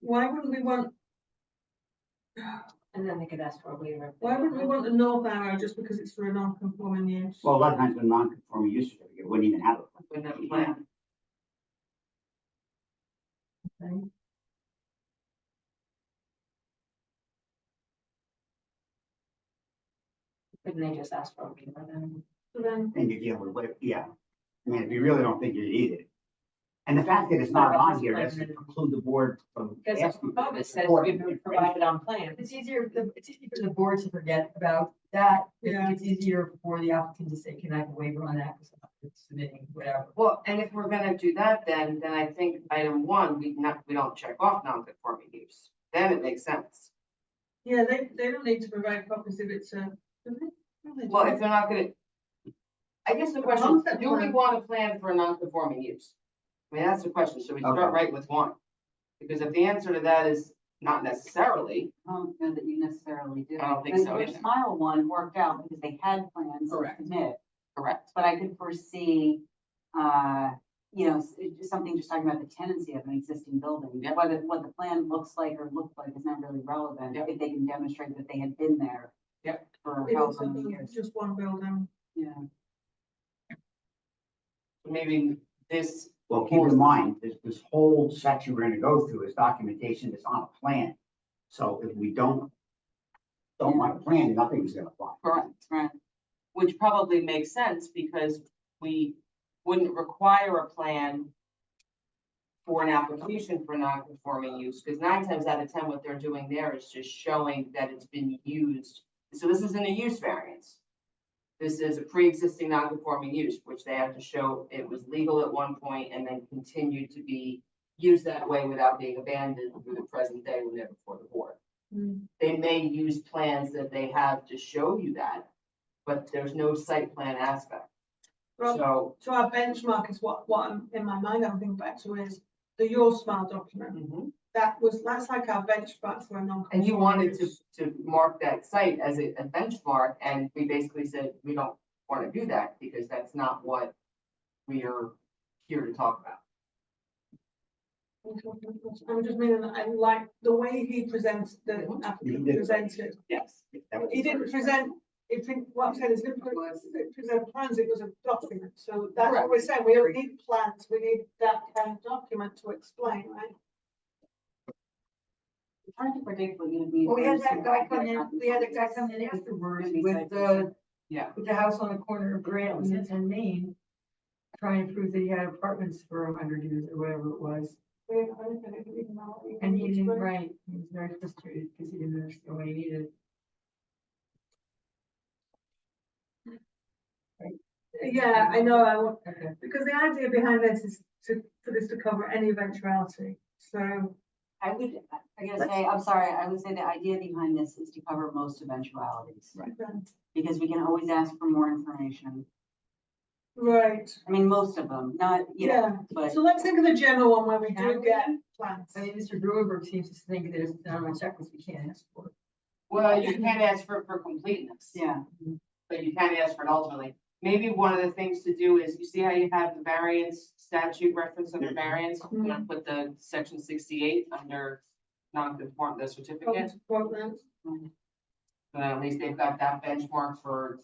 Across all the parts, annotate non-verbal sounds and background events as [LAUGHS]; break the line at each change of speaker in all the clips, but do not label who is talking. why would we want,
And then they could ask for a waiver. if they
why would we
don't
want a north arrow just because it's for a non-conforming use?
Well, a lot of times when non-conforming use certificate wouldn't even have it.
With that plan.
Okay.
Couldn't they just ask for a waiver then?
So then,
And you deal with what, yeah. I mean, if you really don't think you need it. And the fact that it's not on here doesn't preclude the board from
Because
asking.
above it says
Or-
we would provide it on plan.
It's easier, the- it's easier for the board to forget about that. It's-
Yeah.
It's easier for the applicant to say, can I have a waiver on that? Because I'm submitting whatever.
Well, and if we're gonna do that, then, then I think item one, we not, we don't check off non-conforming use. Then it makes sense.
yeah, they, they don't need to provide copies if it's a. do they? No, they
Well,
don't.
if they're not gonna. I guess the question, is,
Concept
do we
plan.
want a plan for a non-conforming use? I mean, that's the question. Should we
Okay.
start right with one? Because if the answer to that is not necessarily,
I don't know that you necessarily do.
I don't think
The-
so
Your
either.
smile one worked out because they had plans to
Correct.
submit,
correct,
but I could foresee, uh, you know, s- it- just something just talking about the tenancy of an existing building.
Yep.
Whether, what the plan looks like or looked like is not really relevant
Yep.
if they can demonstrate that they had been there.
Yep.
For
It
however
also
many
doesn't-
years.
Just one building.
Yeah.
maybe this.
Well, keep in mind, this, this whole section we're gonna go through is documentation that's on a plan. So if we don't, don't want a plan, nothing's gonna fly.
Correct.
Right.
Which probably makes sense because we wouldn't require a plan for an application for non-conforming use, because nine times out of ten, what they're doing there is just showing that it's been used. So this isn't a use variance. This is a pre-existing non-conforming use, which they have to show it was legal at one point and then continued to be used that way without being abandoned through the present day when they're before the board
Mm.
they may use plans that they have to show you that, but there's no site plan aspect.
Well,
So,
So our benchmark is what, what I'm- in my mind I'm thinking back to is the Your Smile document.
mhm.
That was, that's like our benchmark for a non.
and you wanted to, to mark that site as a, a benchmark, and we basically said, we don't wanna do that, because that's not what we are here to talk about.
I'm just meaning that I like the way he presents, the
Mhm.
applicant
He did.
presents it.
Yes.
That was
He
the
didn't
first-
present, it, didn't- what I'm saying is, he didn't pre- didn't present plans, it was a document, so that's what we're saying, we don't need plans, we need that kind of document to explain, right?
It's hard to predict what you would need.
Well, we had
for a
that guy
site
come
plan.
in, we had that guy come in afterwards with the,
Yeah.
with the house on the corner of Graham's
Mhm.
and Maine. Trying to prove that he had apartments for a hundred years or whatever it was,
We don't know anything, we don't know what we
and he
need to
didn't
do.
write, he was very frustrated because he didn't understand what he needed.
Yeah, I know, I want,
Okay.
because the idea behind this is to, for this to cover any eventuality, so.
I would, I gotta say, I'm sorry, I would say the idea behind this is to cover most eventualities.
then-
Because we can always ask for more information.
Right,
I mean, most of them, not, you know,
yeah,
but.
so let's think of the general one where we do
Can we? Oh,
get plans.
I mean, Mr. Brewer seems to think that it's not on a checklist, we can't ask for. it.
Well, you can't ask for, for completeness.
Yeah,
but you can ask for it ultimately. Maybe one of the things to do is, you see how you have the variance statute reference under
Mhm.
variance? I'm gonna put the section sixty-eight under non-conform, the certificate,
Support them.
so at least they've got that benchmark for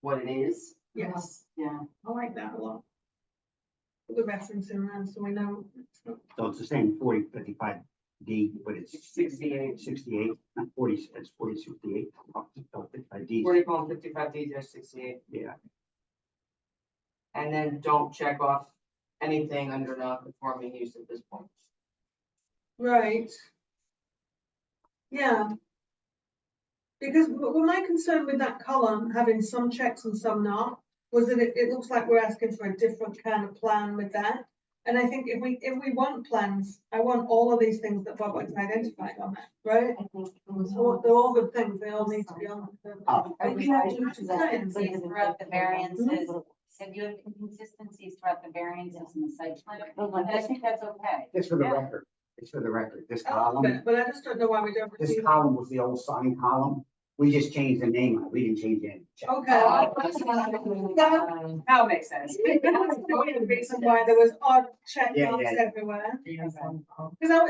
what it is.
Yes,
yeah.
I like that a lot. Put the reference in around, so we know. it's not-
So it's the same forty fifty-five D, but it's
Sixty-eight,
sixty-eight, not forty, it's forty sixty-eight. So fifty-five D,
forty-four, fifty-five, D dash sixty-eight,
yeah.
and then don't check off anything under non-conforming use at this point.
Right. Yeah. Because w- well, my concern with that column, having some checks and some not, was that it, it looks like we're asking for a different kind of plan with that. And I think if we, if we want plans, I want all of these things that Bob has identified on that, right?
I think.
So what- they're all good things, they all need to be on.
Oh.
But
Okay.
you have
I do understand.
inconsistencies throughout the variances, if you have inconsistencies throughout the variances in the site plan,
Oh,
and I think that's okay.
Just for the
Yeah. Oh,
record, just for the record, this
I love
column,
it, But I just don't know why we don't.
this
receive-
column was the old sign column. We just changed the name. on it. We didn't change any.
Okay.
[LAUGHS]
That makes sense.
[LAUGHS] That's the only reason why there was odd check
Yeah,
marks
yeah.
everywhere.
He has one.
Because I,